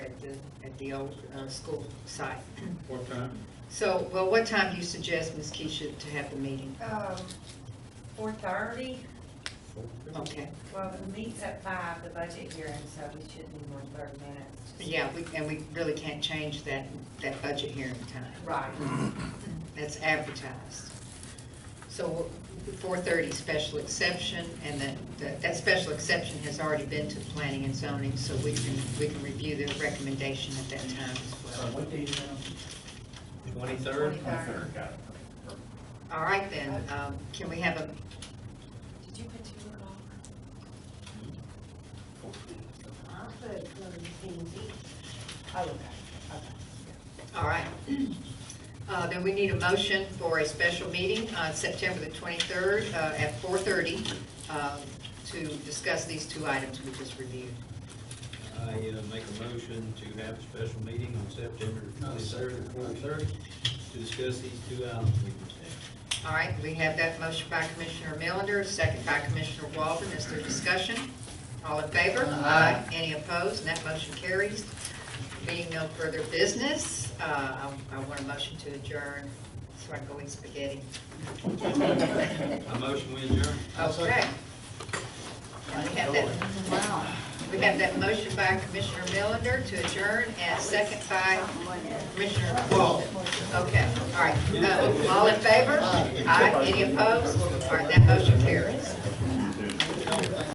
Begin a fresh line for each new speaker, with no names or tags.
the, at the old, uh, school site.
What time?
So, well, what time do you suggest, Ms. Keisha, to have the meeting?
Um, four thirty,
Okay,
well, the meet's at five, the budget hearing, so we should need more than thirty minutes.
yeah, we, and we really can't change that, that budget hearing time.
Right,
That's advertised. So four thirty special exception, and that, that, that special exception has already been to planning and zoning, so we can, we can review their recommendation at that time as well.
what day is that?
Twenty-third?
Twenty-third.
got it.
All right then, um, can we have a,
did you put two o'clock?
I put one each.
Oh, okay, okay.
all right. Uh, then we need a motion for a special meeting on September the twenty-third, uh, at four thirty, um, to discuss these two items we just reviewed.
I uh, make a motion to have a special meeting on September twenty-third and twenty-third to discuss these two items we just had.
All right, we have that motion by Commissioner Melander, second by Commissioner Walden. Is there discussion? All in favor?
Aye.
Any opposed? And that motion carries. Being no further business, uh, I I want a motion to adjourn so I can go eat spaghetti.
I motion we adjourn.
Okay. And We have that, we have that motion by Commissioner Melander to adjourn and second by Commissioner Walden. Okay, all right. Uh, All in favor? Aye. Any opposed? All right, that motion carries.